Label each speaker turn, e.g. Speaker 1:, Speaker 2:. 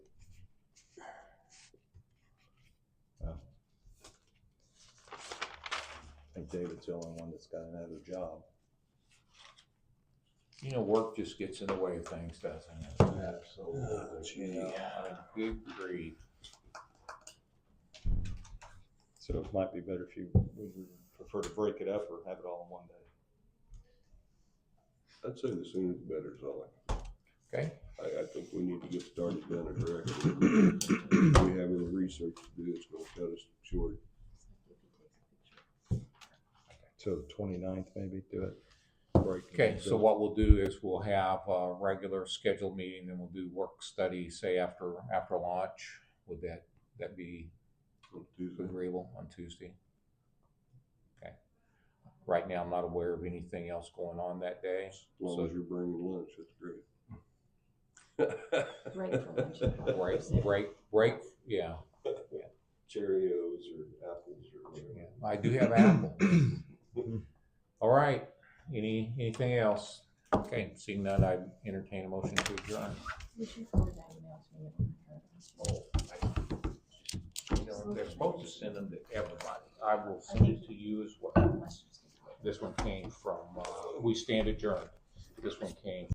Speaker 1: David's the only one that's got another job.
Speaker 2: You know, work just gets in the way of things, doesn't it?
Speaker 1: Absolutely.
Speaker 2: You know, I mean, Good grief.
Speaker 1: So it might be better if you, would you prefer to break it up or have it all in one day?
Speaker 3: I'd say the sooner the better is all.
Speaker 2: Okay,
Speaker 3: I, I think we need to get started down the direction. If We have any research to do, it's gonna cut us short.
Speaker 1: So the twenty-ninth maybe, do it. Break it
Speaker 2: okay,
Speaker 1: up.
Speaker 2: so what we'll do is we'll have a regular scheduled meeting, then we'll do work study, say after, after lunch. Would that, that be
Speaker 3: on Tuesday.
Speaker 2: agreeable on Tuesday? Okay. Right now, I'm not aware of anything else going on that day.
Speaker 3: As long as you're bringing lunch, that's great.
Speaker 4: Right for lunch.
Speaker 2: Break, break, break, yeah,
Speaker 3: Cheerios or apples or
Speaker 2: yeah. I do have apple. All right, any, anything else? Okay, seeing none, I entertain a motion to adjourn.
Speaker 4: You should forward that email to me. if you
Speaker 2: Oh,
Speaker 4: haven't.
Speaker 2: I- You know, they're supposed to send them to everybody. I will send it to you as well.
Speaker 4: Unless you just-
Speaker 2: This one came from, uh, we stand adjourned. This one came